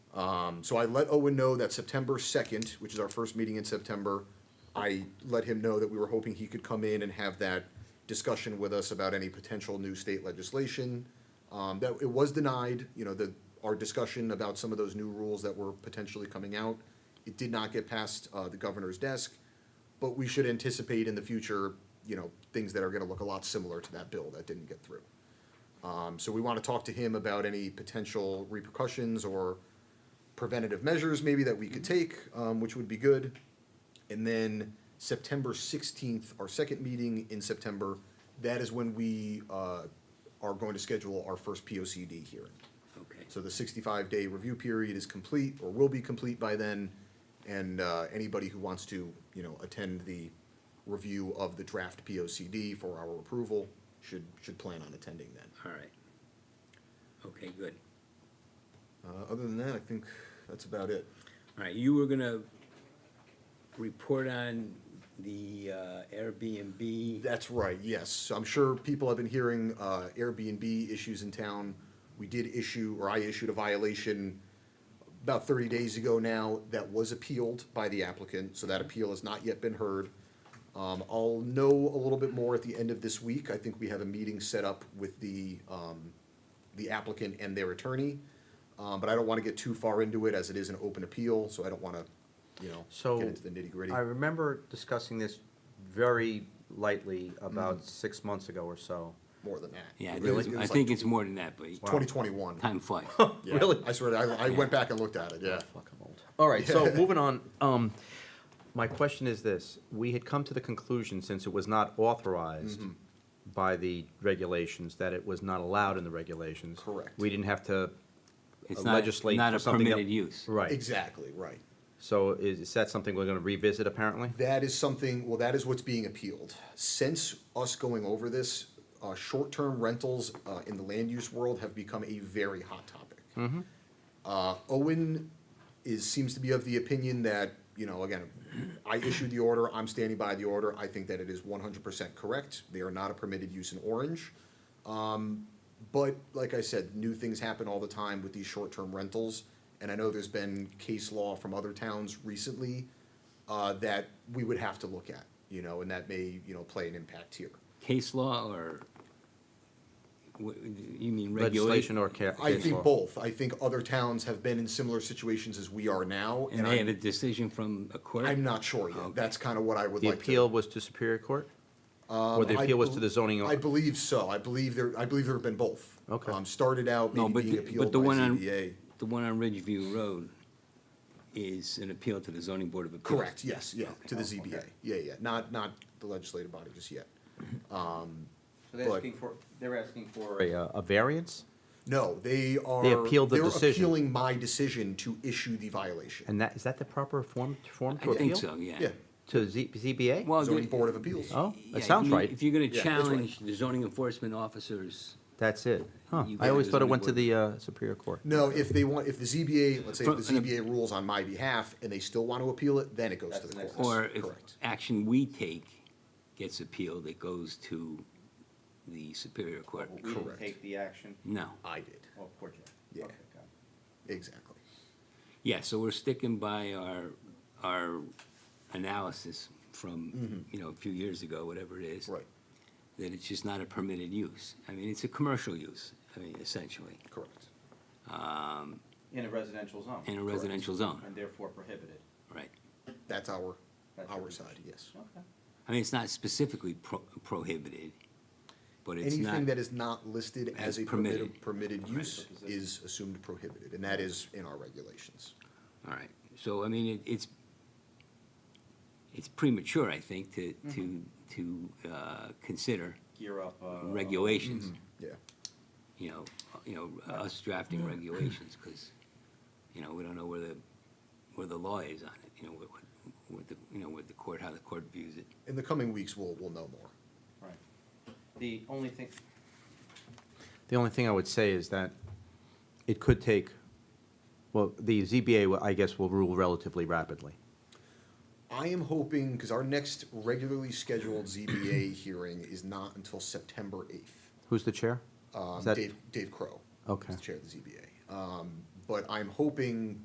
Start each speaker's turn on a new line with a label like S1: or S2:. S1: Um, so I let Owen know that September second, which is our first meeting in September, I let him know that we were hoping he could come in and have that discussion with us about any potential new state legislation. Um, that, it was denied, you know, the, our discussion about some of those new rules that were potentially coming out. It did not get past, uh, the governor's desk, but we should anticipate in the future, you know, things that are gonna look a lot similar to that bill that didn't get through. Um, so we wanna talk to him about any potential repercussions or preventative measures maybe that we could take, um, which would be good. And then September sixteenth, our second meeting in September, that is when we, uh, are going to schedule our first P O C D hearing.
S2: Okay.
S1: So the sixty-five day review period is complete or will be complete by then. And, uh, anybody who wants to, you know, attend the review of the draft P O C D for our approval should, should plan on attending then.
S2: All right. Okay, good.
S1: Uh, other than that, I think that's about it.
S2: All right, you were gonna report on the uh, Airbnb.
S1: That's right, yes. I'm sure people have been hearing uh, Airbnb issues in town. We did issue, or I issued a violation about 30 days ago now that was appealed by the applicant, so that appeal has not yet been heard. Um, I'll know a little bit more at the end of this week. I think we have a meeting set up with the, um, the applicant and their attorney. Um, But I don't want to get too far into it as it is an open appeal, so I don't want to, you know,
S3: So.
S1: get into the nitty gritty.
S3: I remember discussing this very lightly about six months ago or so.
S1: More than that.
S2: Yeah,
S1: It
S2: there
S1: was-
S2: was-
S1: it
S2: I
S1: was like
S2: think it's more than that, but
S1: 2021.
S2: time flies.
S1: Yeah, I swear, to- I, I went back and looked at it, yeah.
S3: Ah, Fuck, I'm old. All right, so moving on, um, my question is this, we had come to the conclusion, since it was not authorized by the regulations, that it was not allowed in the regulations.
S1: Correct.
S3: We didn't have to uh,
S2: It's not,
S3: legislate
S2: not
S3: for
S2: a
S3: something else.
S2: permitted use.
S3: Right,
S1: Exactly, right.
S3: so is, is that something we're gonna revisit apparently?
S1: That is something, well, that is what's being appealed. Since us going over this, uh, short-term rentals, uh, in the land use world have become a very hot topic.
S2: Mm-hmm.
S1: Uh, Owen is, seems to be of the opinion that, you know, again, I issued the order, I'm standing by the order, I think that it is one hundred percent correct. They are not a permitted use in Orange. But like I said, new things happen all the time with these short-term rentals, and I know there's been case law from other towns recently uh, that we would have to look at, you know, and that may you know play an impact here.
S2: Case law or, wha- you mean regulation?
S3: Legislation or ca- case
S1: I think
S3: law?
S1: both. I think other towns have been in similar situations as we are now, and,
S2: And they have a
S1: I'm,
S2: decision from a court?
S1: I'm not sure yet.
S2: Okay.
S1: That's kind of what I would
S3: The
S1: like.
S3: appeal was to Um, Superior Court? Or the
S1: to, I
S3: appeal was
S1: bel-
S3: to the zoning?
S1: I believe so. I believe there. I believe there have been both.
S3: Okay.
S1: Um, started out maybe
S2: No, but,
S1: being
S2: the-
S1: appealed
S2: but the
S1: by
S2: one on,
S1: ZBA.
S2: the one on Ridgeview Road is an appeal to the zoning board of appeals.
S1: Correct, yes, yeah, to
S2: Oh,
S1: the ZBA, yeah, yeah, not, not the legislative body just yet.
S3: So
S1: they're but- asking
S3: for, they're asking for. A, uh, a variance?
S1: No, they are.
S3: appealed the
S1: they're
S3: decision.
S1: appealing my decision to issue the violation.
S3: And that, is that the proper form, form to
S2: I
S3: appeal?
S2: think so, yeah.
S1: Yeah,
S3: To Z, ZBA?
S2: Well,
S1: zoning
S2: the-
S1: board of appeals.
S3: Oh,
S2: yeah,
S3: that sounds
S2: you-
S3: right.
S2: If you're gonna
S1: Yeah, that's right.
S2: challenge the zoning enforcement officers
S3: That's it. Huh.
S2: You
S3: I always
S2: guys
S3: thought it
S2: on
S3: went to
S2: board.
S3: the uh, Superior Court.
S1: No, if they want, if the ZBA, let's say
S2: From-
S1: if the ZBA rules on my behalf and they still want to appeal it, then it goes to the courts.
S2: Or if
S1: Correct.
S2: action we take gets appealed, it goes to the Superior Court.
S4: We didn't
S1: Correct.
S4: take the action,
S2: No.
S1: I did,
S4: oh, poor Jeff.
S1: Yeah.
S4: Okay, got it.
S1: exactly.
S2: Yeah, so we're sticking by our, our analysis from, you know, a few years ago, whatever it is.
S1: Mm-hmm. Right,
S2: That it's just not a permitted use. I mean, it's a commercial use, I mean, essentially, Um,
S1: correct.
S4: In a residential zone.
S2: in a residential zone,
S4: And therefore prohibited.
S2: right?
S1: That's our,
S4: That's
S1: our
S4: what-
S1: side, yes.
S4: Okay.
S2: I mean, it's not specifically pro- prohibited, but it's not.
S1: Anything that is not listed as
S2: as
S1: a
S2: permitted.
S1: permitted, permitted use
S4: Right.
S1: is assumed prohibited, and that is in our regulations.
S2: All right, so, I mean, it, it's, it's premature, I think, to, to, to, uh, consider
S4: Gear up, uh.
S2: regulations,
S1: Yeah.
S2: you know, uh, you know, us drafting regulations, because, you know, we don't know where the, where the law is on it, you know, what, what, what the, you know, what the court, how the court views it.
S1: In the coming weeks, we'll, we'll know more.
S4: Mm-hmm. Right. The only thing,
S3: The only thing I would say is that it could take, well, the ZBA, will- I guess, will rule relatively rapidly.
S1: I am hoping, because our next regularly scheduled ZBA hearing is not until September eighth.
S3: Who's the chair? Is
S1: Um,
S3: that-
S1: Dave, Dave Crow. is
S3: Okay.
S1: the Chair of the ZBA. Um, but I'm hoping